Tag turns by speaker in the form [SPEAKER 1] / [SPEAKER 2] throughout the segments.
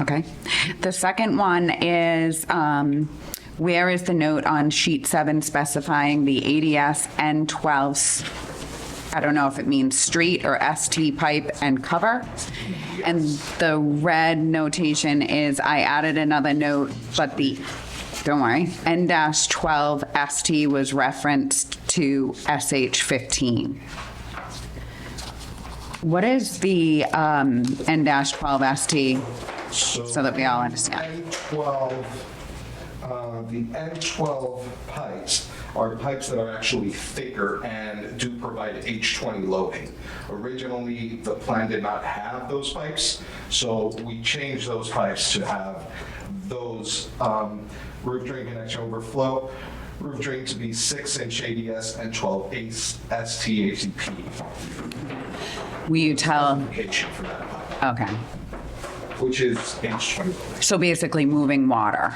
[SPEAKER 1] Okay. The second one is, um, where is the note on sheet seven specifying the ADS N12? I don't know if it means street or ST pipe and cover. And the red notation is I added another note, but the, don't worry, N dash 12 ST was referenced to SH 15. What is the um, N dash 12 ST? So that we all understand.
[SPEAKER 2] N12, uh, the N12 pipes are pipes that are actually thicker and do provide H20 loading. Originally, the plan did not have those pipes, so we changed those pipes to have those um, roof drain connection overflow, roof drain to be 6-inch ADS and 12 STACP
[SPEAKER 1] Will you tell?
[SPEAKER 2] location for that pipe,
[SPEAKER 1] Okay.
[SPEAKER 2] which is H20 loading.
[SPEAKER 1] So basically moving water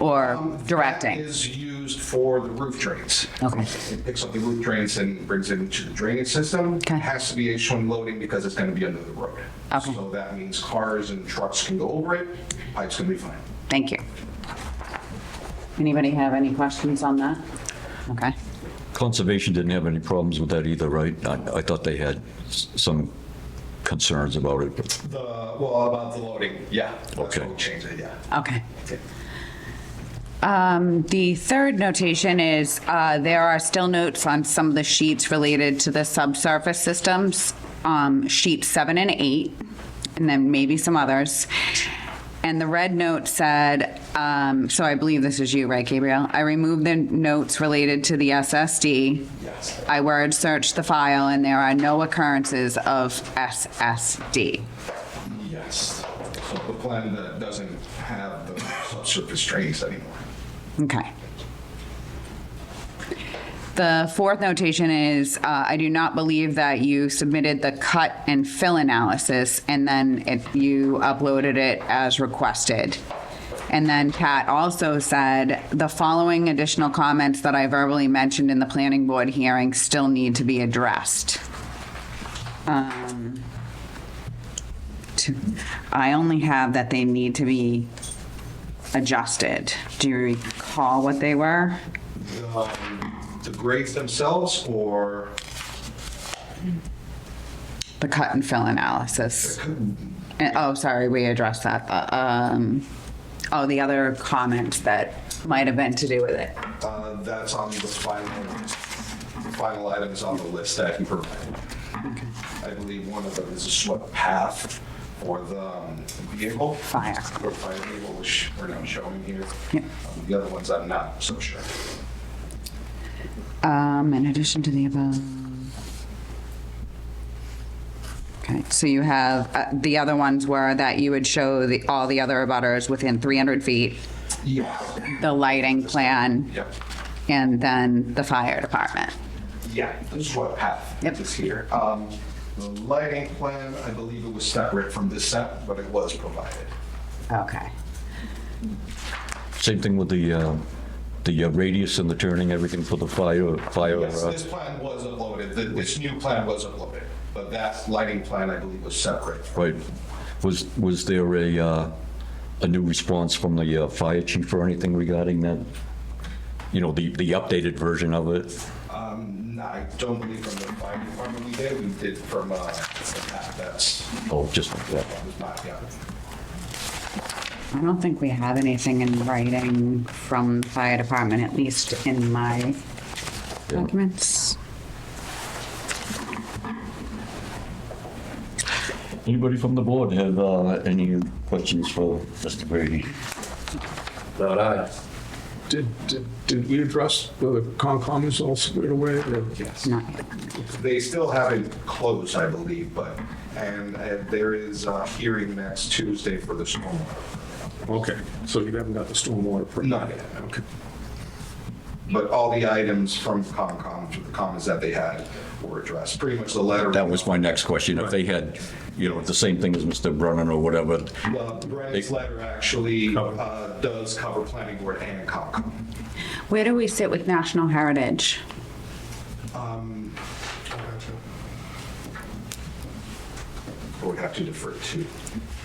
[SPEAKER 1] or
[SPEAKER 2] Um, That
[SPEAKER 1] directing?
[SPEAKER 2] is used for the roof drains.
[SPEAKER 1] Okay.
[SPEAKER 2] It picks up the roof drains and brings it into the drainage system.
[SPEAKER 1] Okay.
[SPEAKER 2] Has to be H1 loading because it's going to be under the road.
[SPEAKER 1] Okay.
[SPEAKER 2] So that means cars and trucks can go over it, pipes can be fine.
[SPEAKER 1] Thank you. Anybody have any questions on that? Okay.
[SPEAKER 3] Conservation didn't have any problems with that either, right? I, I thought they had s- some concerns about it, but
[SPEAKER 2] The, well, about the loading, yeah. That's
[SPEAKER 3] Okay.
[SPEAKER 2] what we changed it, yeah.
[SPEAKER 1] Okay. Um, The third notation is uh, there are still notes on some of the sheets related to the subsurface systems, um, sheet seven and eight, and then maybe some others. And the red note said, um, so I believe this is you, right, Gabriel? I removed the notes related to the SSD.
[SPEAKER 2] Yes.
[SPEAKER 1] I word searched the file, and there are no occurrences of SSD.
[SPEAKER 2] Yes. So the plan that doesn't have the subsurface drains anymore.
[SPEAKER 1] Okay. The fourth notation is, uh, I do not believe that you submitted the cut and fill analysis, and then it- you uploaded it as requested. And then Kat also said, the following additional comments that I verbally mentioned in the planning board hearing still need to be addressed. Um, to- I only have that they need to be adjusted. Do you recall what they were?
[SPEAKER 2] Um, The grades themselves or
[SPEAKER 1] The cut and fill analysis. And- Oh, sorry, we addressed that. Uh, um, Oh, the other comments that might have been to do with it.
[SPEAKER 2] uh, that's on the final, final items on the list that he provided. I believe one of them is a swept path for the um, vehicle.
[SPEAKER 1] Fire.
[SPEAKER 2] Or fire vehicle, which we're not showing here.
[SPEAKER 1] Yeah.
[SPEAKER 2] Um, The other ones I'm not so sure.
[SPEAKER 1] Um, In addition to the above. Okay, so you have, uh, the other ones were that you would show the, all the other abutters within 300 feet,
[SPEAKER 2] Yeah.
[SPEAKER 1] the lighting plan.
[SPEAKER 2] Yep.
[SPEAKER 1] And then the fire department.
[SPEAKER 2] Yeah, the swept path
[SPEAKER 1] Yep.
[SPEAKER 2] is here. Um, The lighting plan, I believe it was separate from this set, but it was provided.
[SPEAKER 1] Okay.
[SPEAKER 3] same thing with the, uh, the uh, radius and the turning, everything for the fire, fire.
[SPEAKER 2] Yes,
[SPEAKER 3] uh,
[SPEAKER 2] this plan was uploaded, Th- this new plan was uploaded, but that lighting plan, I believe, was separate.
[SPEAKER 3] Right. Was, was there a, uh, a new response from the uh, fire chief or anything regarding that? You know, the, the updated version of it?
[SPEAKER 2] Um, I don't believe from the fire department we did, we did from, uh, the path that's,
[SPEAKER 3] Oh, just, yeah.
[SPEAKER 2] that was not, yeah.
[SPEAKER 1] I don't think we have anything in writing from the fire department, at least in my documents.
[SPEAKER 3] Anybody from the board have uh, any questions for Mr. Brady?
[SPEAKER 4] Not I.
[SPEAKER 5] Did, did, did we address whether Concom is all squared away? or-
[SPEAKER 2] Yes.
[SPEAKER 1] Not yet.
[SPEAKER 2] They still haven't closed, I believe, but, and uh, there is a hearing next Tuesday for the stormwater.
[SPEAKER 5] Okay, so you haven't got the stormwater permit?
[SPEAKER 2] Not yet.
[SPEAKER 5] Okay.
[SPEAKER 2] But all the items from Concom, the comments that they had were addressed, pretty much the letter.
[SPEAKER 3] That was my next question. If they had, you know, the same thing as Mr. Brennan or whatever,
[SPEAKER 2] Well, Brennan's letter actually, uh, does cover planning board and Concom.
[SPEAKER 1] Where do we sit with National Heritage?
[SPEAKER 2] I would have to defer to